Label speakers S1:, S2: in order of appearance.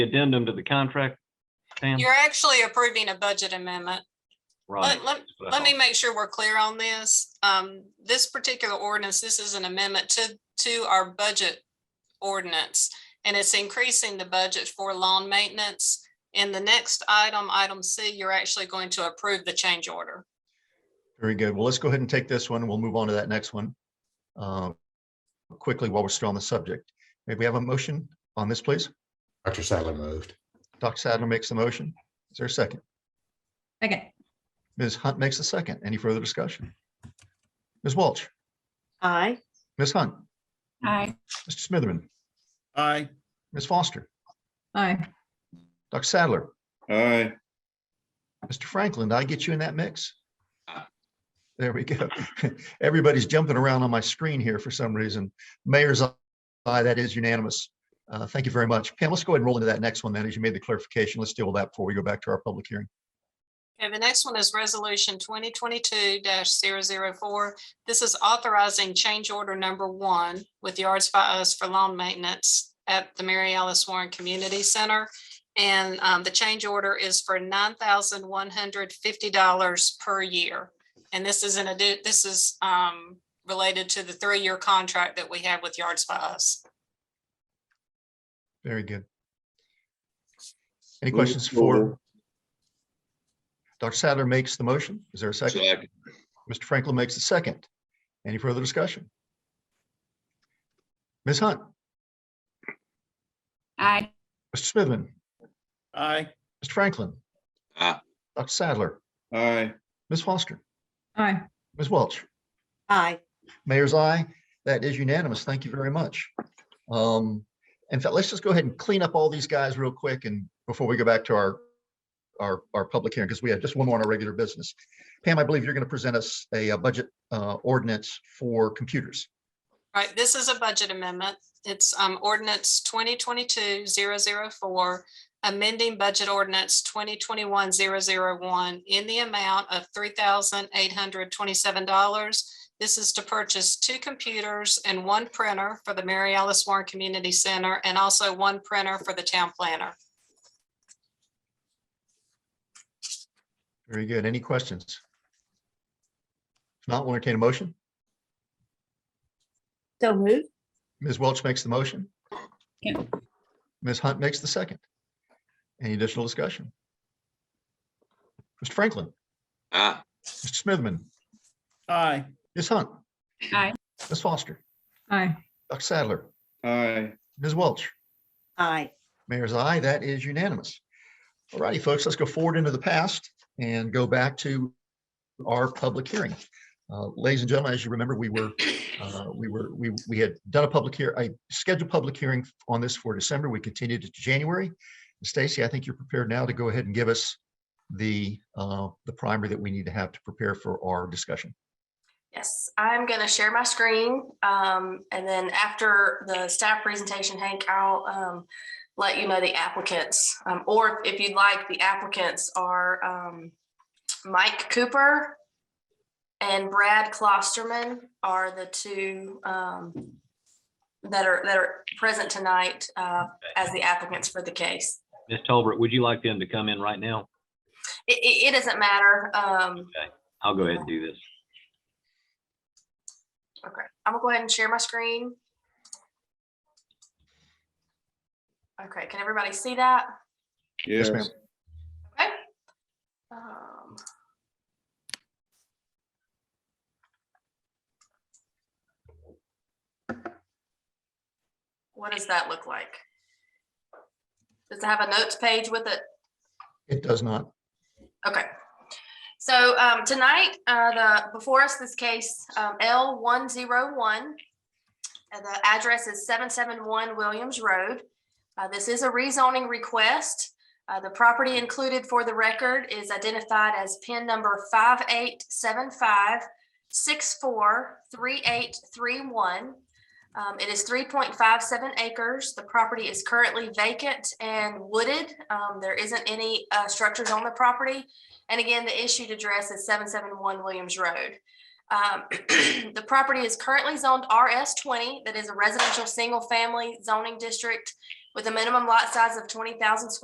S1: addendum to the contract, Pam?
S2: You're actually approving a budget amendment.
S1: Right.
S2: Let, let, let me make sure we're clear on this. Um, this particular ordinance, this is an amendment to, to our budget ordinance. And it's increasing the budget for lawn maintenance. In the next item, item C, you're actually going to approve the change order.
S3: Very good. Well, let's go ahead and take this one. We'll move on to that next one. uh, Quickly, while we're still on the subject, may we have a motion on this, please?
S4: Dr. Sadler moved.
S3: Dr. Sadler makes the motion. Is there a second?
S5: Second.
S3: Ms. Hunt makes a second. Any further discussion? Ms. Welch,
S6: Aye.
S3: Ms. Hunt,
S5: Aye.
S3: Mr. Smitherman,
S7: Aye.
S3: Ms. Foster,
S5: Aye.
S3: Dr. Sadler,
S7: Aye.
S3: Mr. Franklin, did I get you in that mix? There we go. Everybody's jumping around on my screen here for some reason. Mayor's eye, that is unanimous. Uh, Thank you very much. Pam, let's go ahead and roll into that next one then, as you made the clarification. Let's deal with that before we go back to our public hearing.
S2: Okay, the next one is resolution twenty twenty-two 4 This is authorizing change order number one with Yards by Us for lawn maintenance at the Mary Alice Warren Community Center. And um, the change order is for nine thousand one hundred fifty dollars per year. And this is an addi- this is um, related to the three-year contract that we have with Yards by Us.
S3: Very good. Any questions for? Dr. Sadler makes the motion. Is there a second?
S7: Second.
S3: Mr. Franklin makes the second. Any further discussion? Ms. Hunt,
S5: Aye.
S3: Mr. Smithman,
S7: Aye.
S3: Mr. Franklin,
S7: Aye.
S3: Dr. Sadler,
S7: Aye.
S3: Ms. Foster,
S5: Aye.
S3: Ms. Welch.
S6: Aye.
S3: Mayor's eye. That is unanimous. Thank you very much. Um, in fact, let's just go ahead and clean up all these guys real quick and before we go back to our, our, our public hearing, because we have just one more on our regular business. Pam, I believe you're going to present us a uh, budget uh, ordinance for computers.
S2: Right, this is a budget amendment. It's um ordinance 2022-004, amending budget ordinance 2021-001 in the amount of three thousand eight hundred twenty-seven dollars. This is to purchase two computers and one printer for the Mary Alice Warren Community Center and also one printer for the town planner.
S3: Very good. Any questions? If not, we'll entertain a motion.
S6: So moved.
S3: Ms. Welch makes the motion.
S5: Yeah.
S3: Ms. Hunt makes the second. Any additional discussion? Mr. Franklin,
S7: Aye.
S3: Mr. Smithman,
S7: Aye.
S3: Ms. Hunt.
S5: Aye.
S3: Ms. Foster,
S5: Aye.
S3: Dr. Sadler,
S7: Aye.
S3: Ms. Welch,
S6: Aye.
S3: Mayor's eye, that is unanimous. All righty, folks, let's go forward into the past and go back to our public hearing. Uh, Ladies and gentlemen, as you remember, we were, uh, we were, we, we had done a public here, I scheduled public hearing on this for December. We continued it to January. Stacy, I think you're prepared now to go ahead and give us the, uh, the primer that we need to have to prepare for our discussion.
S8: Yes, I'm gonna share my screen, um, and then after the staff presentation, Hank, I'll, um, let you know the applicants, um, or if you'd like, the applicants are, um, Mike Cooper and Brad Klosterman are the two, um, that are, that are present tonight, uh, as the applicants for the case.
S1: Ms. Tolbert, would you like them to come in right now?
S8: It, it, it doesn't matter, um,
S1: I'll go ahead and do this.
S8: Okay, I'm gonna go ahead and share my screen. Okay, can everybody see that?
S3: Yes,
S7: Yes.
S3: ma'am.
S8: Okay. Um, What does that look like? Does it have a notes page with it?
S3: It does not.
S8: Okay. So um, tonight, uh, the, before us, this case um, L one zero one. uh, The address is seven seven one Williams Road. Uh, This is a rezoning request. Uh, The property included for the record is identified as pin number five eight seven five six four three eight three one. Um, It is three point five seven acres. The property is currently vacant and wooded. Um, There isn't any uh, structures on the property. And again, the issued address is seven seven one Williams Road. Um, The property is currently zoned RS twenty, that is a residential single-family zoning district. with a minimum lot size of twenty thousand square